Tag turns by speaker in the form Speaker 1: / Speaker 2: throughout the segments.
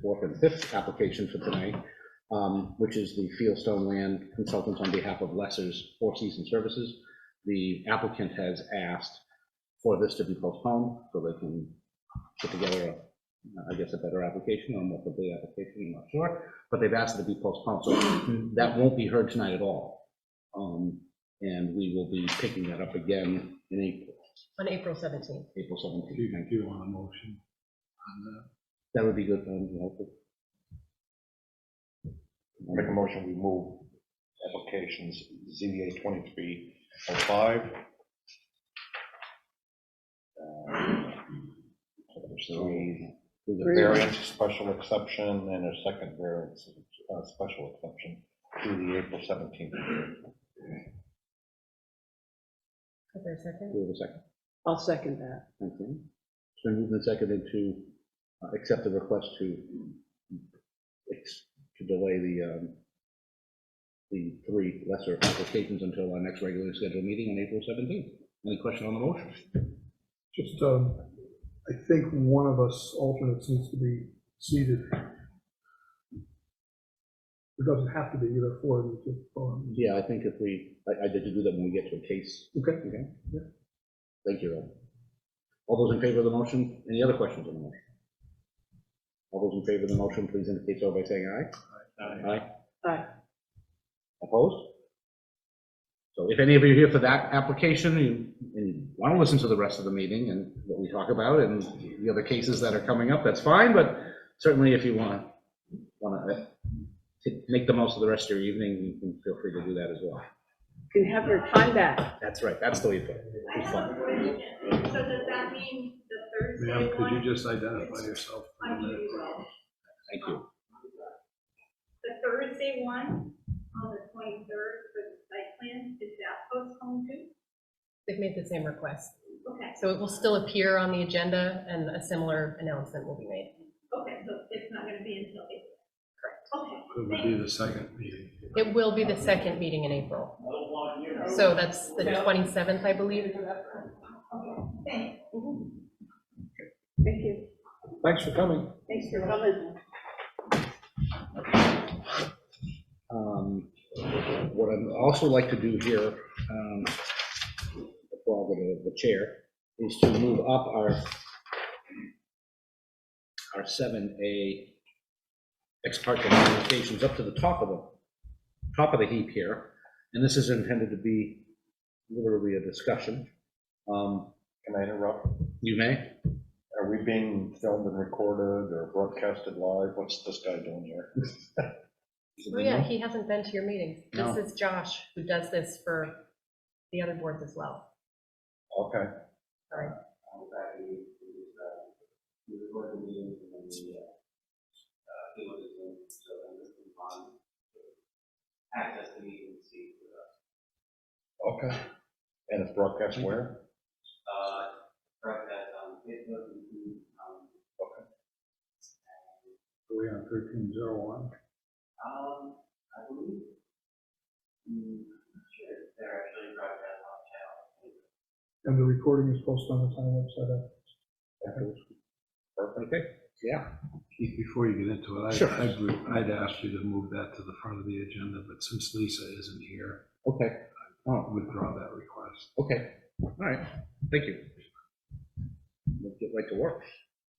Speaker 1: fourth, and fifth application for tonight, um, which is the Fieldstone Land Consultants on behalf of Lesser's Four Season Services. The applicant has asked for this to be postponed so they can put together, a, I guess, a better application or a more complete application, I'm not sure. But they've asked it to be postponed, so that won't be heard tonight at all. Um, And we will be picking that up again in April,
Speaker 2: on April 17th.
Speaker 1: April
Speaker 3: Do
Speaker 1: 17th.
Speaker 3: you, do you want a motion on that?
Speaker 1: That would be good, um, you know,
Speaker 4: Make a motion, we move applications ZBA 2305. Three variance, special exception, and a second variance, uh, special exception to the April 17th.
Speaker 2: Is there a second?
Speaker 1: we have a second.
Speaker 5: I'll second that.
Speaker 1: Thank you. Mm-hmm. So moving the second into, uh, accept the request to, ex- to delay the, um, the three lesser applications until our next regularly scheduled meeting on April 17th. Any question on the motion?
Speaker 6: Just, um, I think one of us alternates needs to be seated. It doesn't have to be, either four of you could, um,
Speaker 1: Yeah, I think if we, I, I did do that when we get to a case.
Speaker 6: Okay.
Speaker 1: Okay?
Speaker 6: Yeah.
Speaker 1: Thank you, Ed. All those in favor of the motion? Any other questions on the motion? All those in favor of the motion, please indicate so by saying aye. Aye.
Speaker 5: Aye.
Speaker 1: Opposed? So if any of you are here for that application, you, and want to listen to the rest of the meeting and what we talk about and the other cases that are coming up, that's fine, but certainly if you want to, want to make the most of the rest of your evening, you can feel free to do that as well.
Speaker 5: You can have your time back.
Speaker 1: That's right, that's the way to put it.
Speaker 7: I have a question, so does that mean the
Speaker 3: Ma'am,
Speaker 7: Thursday
Speaker 3: could
Speaker 7: one?
Speaker 3: you just identify yourself? for
Speaker 7: I
Speaker 3: the
Speaker 7: can do
Speaker 3: minute?
Speaker 7: that.
Speaker 1: Thank you.
Speaker 7: The Thursday one on the twenty-third for the site plan, is that postponed too?
Speaker 2: They've made the same request.
Speaker 7: Okay,
Speaker 2: So it will still appear on the agenda and a similar announcement will be made.
Speaker 7: okay, so it's not gonna be until April? Correct. Okay,
Speaker 3: It would be the second meeting.
Speaker 2: It will be the second meeting in April. So that's the 27th, I believe.
Speaker 7: thanks.
Speaker 5: Thank you.
Speaker 1: Thanks for coming.
Speaker 5: Thanks for coming.
Speaker 1: Um, What I'd also like to do here, um, before I go to the chair, is to move up our, our 7A ex parte communications up to the top of the, top of the heap here. And this is intended to be literally a discussion. Um,
Speaker 4: Can I interrupt?
Speaker 1: You may?
Speaker 4: Are we being filmed and recorded or broadcasted live? What's this guy doing here?
Speaker 2: Oh, yeah, he hasn't been to your meetings.
Speaker 1: No.
Speaker 2: This is Josh, who does this for the other boards as well.
Speaker 4: Okay.
Speaker 8: uh, uh, access the meeting and see,
Speaker 4: Okay. And it's broadcast where?
Speaker 8: uh, correct that, um, it was, um,
Speaker 3: Are we on thirteen zero one?
Speaker 8: um, I believe, mm, sure, they're actually broadcast on channel.
Speaker 6: and the recording is posted on the town website.
Speaker 1: Okay, yeah.
Speaker 3: Keith, before you get into it,
Speaker 1: Sure.
Speaker 3: I- I'd, re- I'd asked you to move that to the front of the agenda, but since Lisa isn't here,
Speaker 1: Okay, Oh.
Speaker 3: I'll withdraw that request.
Speaker 1: okay, all right, thank you. Let's get right to work.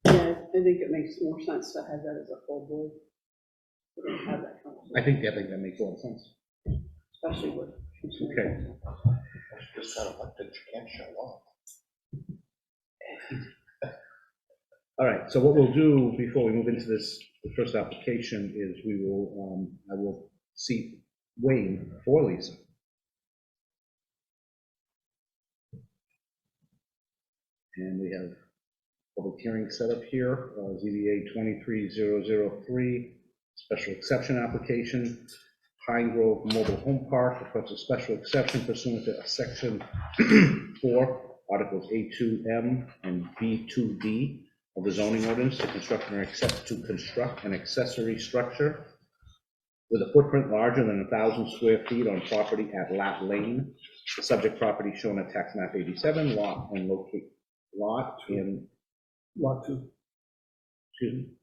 Speaker 5: Yeah, I think it makes more sense to have that as a full board. We don't have that
Speaker 1: I
Speaker 5: conversation,
Speaker 1: think, I think that makes a lot of sense.
Speaker 5: especially with.
Speaker 1: Okay.
Speaker 4: It's just kind of like that you can't show up.
Speaker 1: All right, so what we'll do before we move into this, the first application is we will, um, I will seat Wayne for Lisa. And we have public hearing set up here, uh, ZBA 23003, special exception application. Pine Grove Mobile Home Park requests a special exception pursuant to section 4, Articles A2M and B2D of the zoning ordinance to construct or accept, to construct an accessory structure with a footprint larger than 1,000 square feet on property at Lat Lane, the subject property shown at tax map 87, lot and locate, lot and,
Speaker 6: Lot two,
Speaker 1: excuse me,